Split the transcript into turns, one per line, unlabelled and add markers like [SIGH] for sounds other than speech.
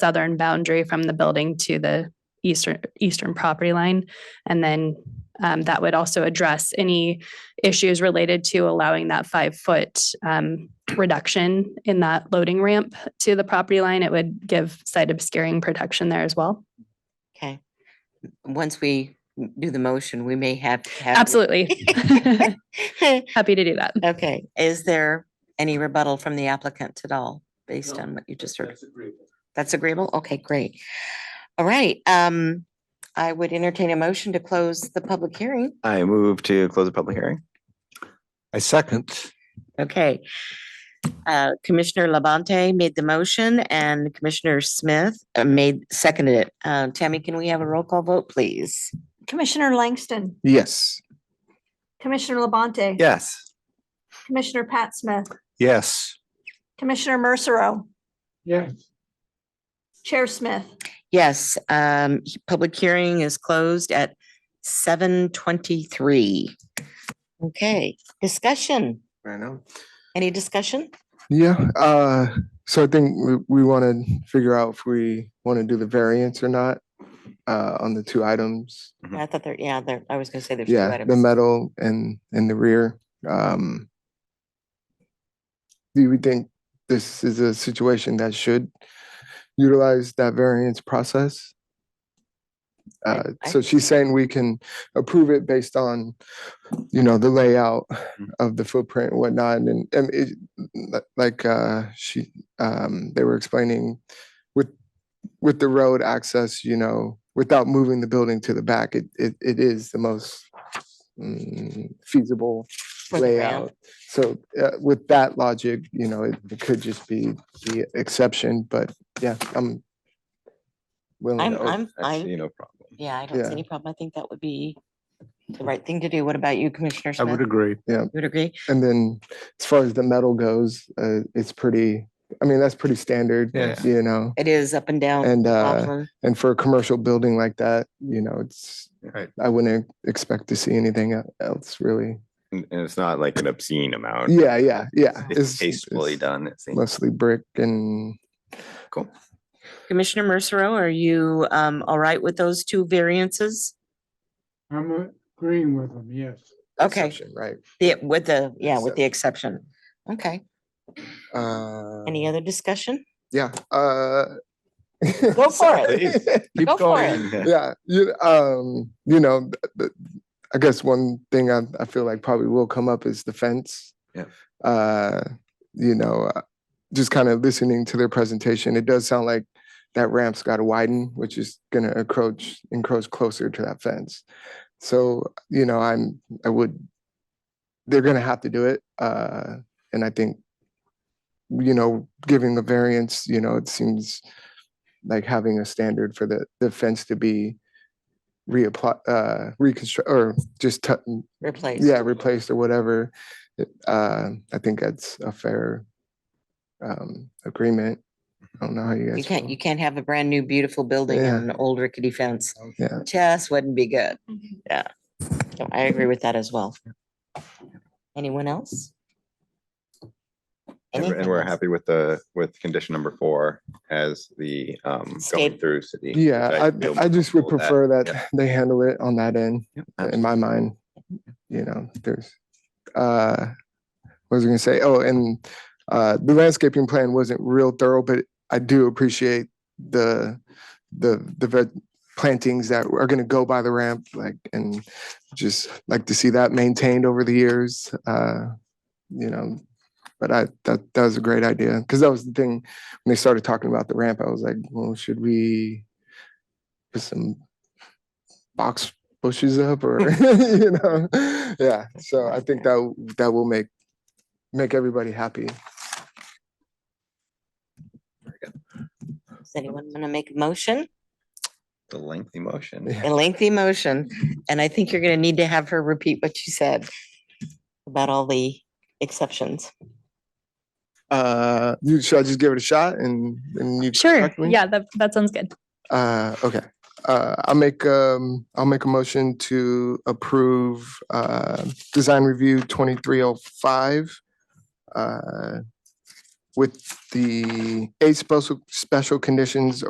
southern boundary from the building to the eastern, eastern property line. And then um, that would also address any issues related to allowing that five-foot um, reduction in that loading ramp to the property line. It would give site obscuring protection there as well.
Okay. M- Once we m- do the motion, we may have. to have-
Absolutely. [LAUGHS] Happy to do that.
[LAUGHS] Okay, is there any rebuttal from the applicant at all, based
No,
on what you just heard?
That's agreeable.
That's agreeable? Okay, great. All right, um, I would entertain a motion to close the public hearing.
I move to close the public hearing.
I second.
Okay. Uh, Commissioner Labonte made the motion and Commissioner Smith uh, made, seconded it. Uh, Tammy, can we have a roll call vote, please?
Commissioner Langston,
Yes.
Commissioner Labonte.
Yes.
Commissioner Pat Smith,
Yes.
Commissioner Mercero,
Yeah.
Chair Smith.
Yes, um, he- public hearing is closed at seven twenty-three. Okay, discussion.
I know.
Any discussion?
Yeah, uh, so I think we, we want to figure out if we want to do the variance or not, uh, on the two items.
Mhm.
Mm.
I thought there, yeah, there, I was gonna say there's two
Yeah, the
items.
metal and, and the rear, um. Do we think this is a situation that should utilize that variance process?
I-
Uh,
I
so she's saying we can approve it based on, you know, the layout
Mm-hmm.
of the footprint and whatnot, and, and it, li- like, uh, she, um, they were explaining with, with the road access, you know, without moving the building to the back, it, it, it is the most mm, feasible
For the ramp.
layout. So, uh, with that logic, you know, it, it could just be the exception, but yeah, I'm willing
I'm,
to
I'm,
I
I,
see no problem.
yeah, I don't
yeah.
see any problem. I think that would be the right thing to do. What about you, Commissioner
I
Smith?
would agree.
You would agree?
And then as far as the metal goes, uh, it's pretty, I mean, that's pretty standard,
Yeah.
you know?
It is up and down.
And, uh,
Laughlin.
and for a commercial building like that, you know, it's,
Right.
I wouldn't expect to see anything e- else really.
And and it's not like an obscene amount.
Yeah, yeah, yeah.
It's tastefully
it's
done, it seems.
Mostly brick and
Commissioner Mercero, are you, um, all right with those two variances?
I'm agreeing with them, yes.
Okay,
exception, right?
Yeah, with the, yeah, with the exception. Okay,
Uh,
any other discussion?
Yeah, uh. [LAUGHS]
Go for it.
Keep
Go for
going.
Yeah.
yeah you um you know th- th- i guess one thing I, I feel like probably will come up is the fence
Yeah.
uh you know uh, just kind of listening to their presentation it does sound like that ramp's got to widen which is going to encroach encroach closer to that fence so you know i'm i would they're going to have to do it uh and i think you know giving the variance you know it seems like having a standard for the, the fence to be reapply, uh, reconstruct, or just, tu-
Replace.
yeah, replaced or whatever. it- Uh, I think that's a fair, um, agreement. I don't know how you guys.
You can't,
feel.
you can't have a brand new beautiful building
Yeah.
and an old rickety fence.
Yeah.
Just wouldn't be good. Yeah. So I agree with that as well. Anyone else?
[LAUGHS] And we're- and
Anything
we're
else?
happy with the, with condition number four as the um going
Scape-
through city. which
Yeah,
feel
I, I just would
comfortable
prefer
yeah.
that they handle it on that end,
Yep,
in my mind. You know, there's, uh, what was I gonna say? Oh, and, uh, the landscaping plan wasn't real thorough, but I do appreciate the, the, the veg plantings that are gonna go by the ramp, like, and just like to see that maintained over the years, uh, you know, but I, that, that was a great idea, because that was the thing, when they started talking about the ramp, I was like, well, should we put some box bushes
[LAUGHS]
up or, [LAUGHS] you know? Yeah, so I think that, w- that will make, make everybody happy.
Does anyone want to make a motion?
The lengthy motion.
Yeah.
A lengthy motion, and I think you're going to need to have her repeat what you said about all the exceptions.
Uh, you, should I just give it a shot and, and you?
Sure.
correct me?
Yeah, that, that sounds good.
Uh, okay, uh, I'll make, um, I'll make a motion to approve, uh, design review twenty-three oh five. Uh, with the eight special, special conditions